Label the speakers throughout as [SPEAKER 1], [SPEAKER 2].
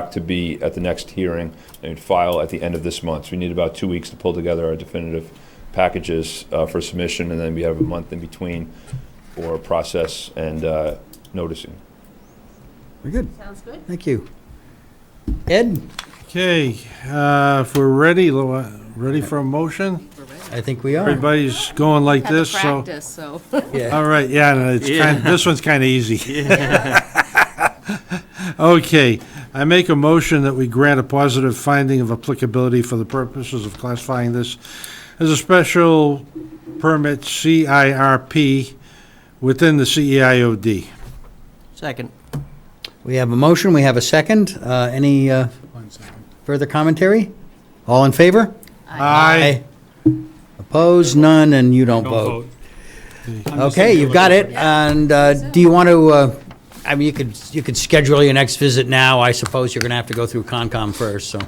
[SPEAKER 1] doc to be at the next hearing and file at the end of this month. So we need about two weeks to pull together our definitive packages uh, for submission, and then we have a month in between for process and uh, noticing.
[SPEAKER 2] Very good.
[SPEAKER 3] Sounds good.
[SPEAKER 2] Thank you. Ed,
[SPEAKER 4] Okay, uh, if we're ready, Lo- uh, ready for a motion?
[SPEAKER 3] We're ready.
[SPEAKER 2] I think we are.
[SPEAKER 4] Everybody's going like
[SPEAKER 3] Had to
[SPEAKER 4] this, so.
[SPEAKER 3] practice, so.
[SPEAKER 2] Yeah.
[SPEAKER 4] All right, yeah, no, it's kind, this one's kind of easy. Okay, I make a motion that we grant a positive finding of applicability for the purposes of classifying this as a special permit CIRP within the E CEIOD.
[SPEAKER 5] Second.
[SPEAKER 2] We have a motion, we have a second. Uh, Any uh, further commentary? All in favor?
[SPEAKER 4] Aye.
[SPEAKER 2] Opposed, none, and you don't vote. Okay, you've got it, and uh, do you want to, uh, I mean, you could, you could schedule your next visit now, I suppose you're going to have to go through Concom first, so.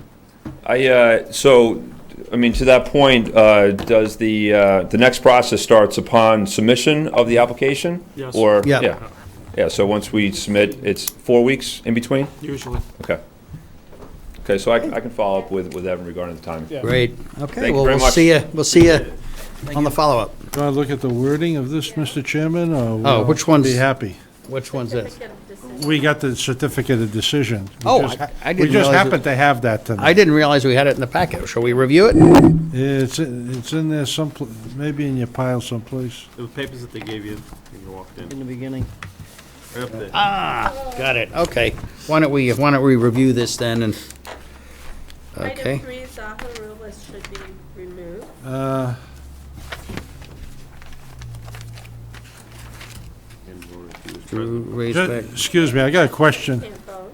[SPEAKER 1] I, uh, so, I mean, to that point, uh, does the, uh, the next process starts upon submission of the application?
[SPEAKER 6] Yes.
[SPEAKER 1] Or,
[SPEAKER 2] Yeah.
[SPEAKER 1] yeah, yeah, so once we submit, it's four weeks in between?
[SPEAKER 6] Usually.
[SPEAKER 1] Okay. Okay, so I, I can follow up with, with Evan regarding the timing.
[SPEAKER 2] Great,
[SPEAKER 1] Thank
[SPEAKER 2] okay,
[SPEAKER 1] you
[SPEAKER 2] well,
[SPEAKER 1] very
[SPEAKER 2] we'll
[SPEAKER 1] much.
[SPEAKER 2] see you, we'll see you on the follow-up.
[SPEAKER 4] Do I look at the wording of this, Mr. Chairman, or? will
[SPEAKER 2] Oh, which
[SPEAKER 4] we
[SPEAKER 2] one's-
[SPEAKER 4] Be happy.
[SPEAKER 2] Which one's this?
[SPEAKER 4] We got the certificate of decision. We
[SPEAKER 2] Oh,
[SPEAKER 4] just-
[SPEAKER 2] I- I didn't
[SPEAKER 4] We
[SPEAKER 2] realize
[SPEAKER 4] just
[SPEAKER 2] it-
[SPEAKER 4] happened to have that
[SPEAKER 2] I
[SPEAKER 4] tonight.
[SPEAKER 2] didn't realize we had it in the packet, shall we review it?
[SPEAKER 4] It's, it's in there some, maybe in your pile someplace.
[SPEAKER 6] The papers that they gave you when you walked in,
[SPEAKER 5] In the beginning.
[SPEAKER 6] right up there.
[SPEAKER 2] Got it, okay. Why don't we, why don't we review this then and,
[SPEAKER 3] Item
[SPEAKER 2] okay?
[SPEAKER 3] three, Zaha Rulas should be removed.
[SPEAKER 4] Uh,
[SPEAKER 6] And Lori, she was
[SPEAKER 2] Drew,
[SPEAKER 6] present.
[SPEAKER 2] raise
[SPEAKER 4] ju-
[SPEAKER 2] back.
[SPEAKER 4] Excuse me, I got a question,
[SPEAKER 3] Can't vote.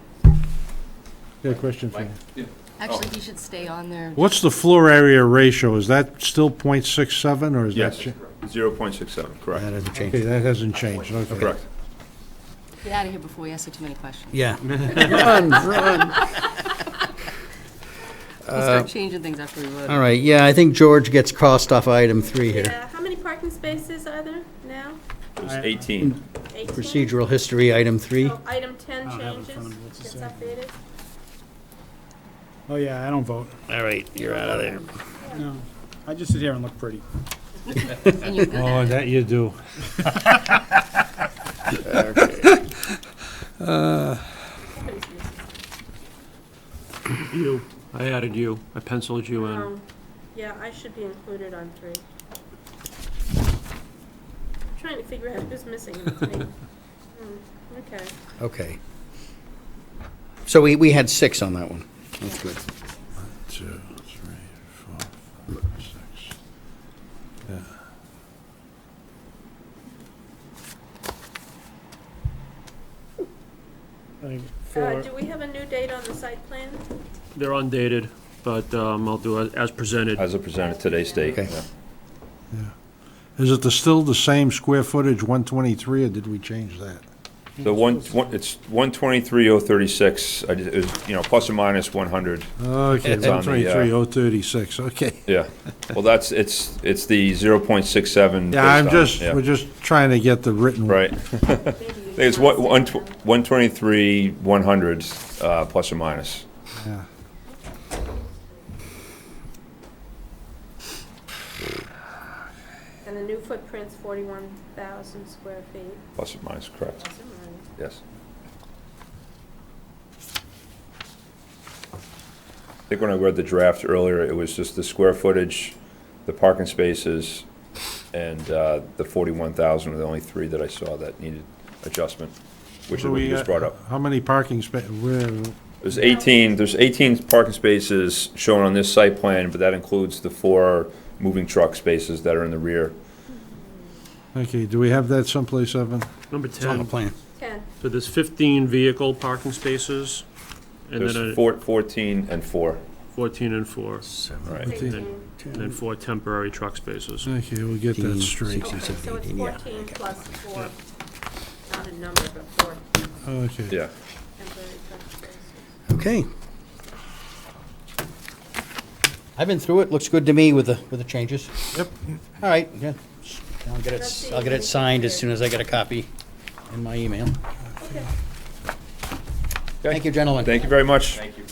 [SPEAKER 4] got a question for you.
[SPEAKER 3] Actually, he should stay on there.
[SPEAKER 4] What's the floor area ratio? Is that still .67 or is that?
[SPEAKER 1] Yes,
[SPEAKER 4] cha-
[SPEAKER 1] zero point six seven,
[SPEAKER 2] That
[SPEAKER 1] correct,
[SPEAKER 2] doesn't
[SPEAKER 4] Okay,
[SPEAKER 2] change.
[SPEAKER 4] that hasn't changed, okay.
[SPEAKER 1] correct.
[SPEAKER 3] Get out of here before we ask you too many questions.
[SPEAKER 2] Yeah. Run, run.
[SPEAKER 3] We'll start changing things after we vote.
[SPEAKER 2] All right, yeah, I think George gets crossed off item three here.
[SPEAKER 3] Yeah, how many parking spaces are there now?
[SPEAKER 1] It was eighteen.
[SPEAKER 3] Eighteen?
[SPEAKER 2] Procedural history, item three.
[SPEAKER 3] So Item ten
[SPEAKER 7] I don't have it in front
[SPEAKER 3] changes,
[SPEAKER 7] of me. What's it
[SPEAKER 3] gets
[SPEAKER 7] say?
[SPEAKER 3] updated.
[SPEAKER 7] Oh, yeah, I don't vote.
[SPEAKER 2] All right, you're out of there.
[SPEAKER 7] No. I just sit here and look pretty.
[SPEAKER 3] And you're good
[SPEAKER 4] Oh,
[SPEAKER 3] at it.
[SPEAKER 4] that you do.
[SPEAKER 6] You, I added you, I penciled you in.
[SPEAKER 3] Um, Yeah, I should be included on three. I'm trying to figure out who's missing in three. Hmm, Okay.
[SPEAKER 2] Okay. So we, we had six on that one. That's good.
[SPEAKER 4] Two, three, four, five, six. Yeah.
[SPEAKER 7] I think
[SPEAKER 3] Uh,
[SPEAKER 7] four.
[SPEAKER 3] do we have a new date on the site plan?
[SPEAKER 6] They're undated, but um, I'll do it as presented.
[SPEAKER 1] As a presented today's date.
[SPEAKER 2] Okay.
[SPEAKER 1] yeah.
[SPEAKER 4] Is it the- still the same square footage, 123, or did we change that?
[SPEAKER 1] The one, one- it's one twenty-three oh thirty-six, I, just- it was, you know, plus or minus one hundred.
[SPEAKER 4] Okay,
[SPEAKER 1] It's on the, uh,
[SPEAKER 4] 123,036, okay.
[SPEAKER 1] Yeah, well, that's, it's, it's the 0.67.
[SPEAKER 4] Yeah, I'm
[SPEAKER 1] based on-
[SPEAKER 4] just,
[SPEAKER 1] yeah,
[SPEAKER 4] we're just trying to get the written.
[SPEAKER 1] Right. I think it's one- one tw- 123, 100, uh, plus or minus.
[SPEAKER 4] Yeah.
[SPEAKER 3] And the new footprint's forty-one thousand square feet.
[SPEAKER 1] Plus or minus, correct,
[SPEAKER 3] Plus or
[SPEAKER 1] yes.
[SPEAKER 3] minus.
[SPEAKER 1] I think when I read the draft earlier, it was just the square footage, the parking spaces, and uh, the 41,000 were the only three that I saw that needed adjustment, which is
[SPEAKER 4] So
[SPEAKER 1] what
[SPEAKER 4] we uh,
[SPEAKER 1] you just
[SPEAKER 4] got-
[SPEAKER 1] brought up.
[SPEAKER 4] How many parking spa, where,
[SPEAKER 1] There's 18, there's 18 parking spaces shown on this site plan, but that includes the four moving truck spaces that are in the rear.
[SPEAKER 4] okay, do we have that someplace, Evan?
[SPEAKER 6] Number
[SPEAKER 2] It's on the
[SPEAKER 6] 10,
[SPEAKER 2] plan.
[SPEAKER 3] Ten.
[SPEAKER 6] so there's 15 vehicle parking spaces, and then
[SPEAKER 1] There's
[SPEAKER 6] a
[SPEAKER 1] four- 14 and 4,
[SPEAKER 6] 14 and 4,
[SPEAKER 1] right.
[SPEAKER 4] Fifteen.
[SPEAKER 3] Eighteen.
[SPEAKER 6] and then four temporary truck spaces.
[SPEAKER 4] Okay, we'll get that
[SPEAKER 2] Fifteen,
[SPEAKER 4] straight.
[SPEAKER 3] Okay, so it's
[SPEAKER 2] Yeah,
[SPEAKER 3] fourteen plus four, not a number, but four
[SPEAKER 4] Okay.
[SPEAKER 1] Yeah,
[SPEAKER 3] temporary truck spaces.
[SPEAKER 2] Okay. I've been through it, looks good to me with the, with the changes.
[SPEAKER 4] Yep.
[SPEAKER 2] All right, yeah. I'll get it, I'll get it signed as soon as I get a copy in my email.
[SPEAKER 3] Okay.
[SPEAKER 2] Thank you, gentlemen.
[SPEAKER 1] Thank you very much.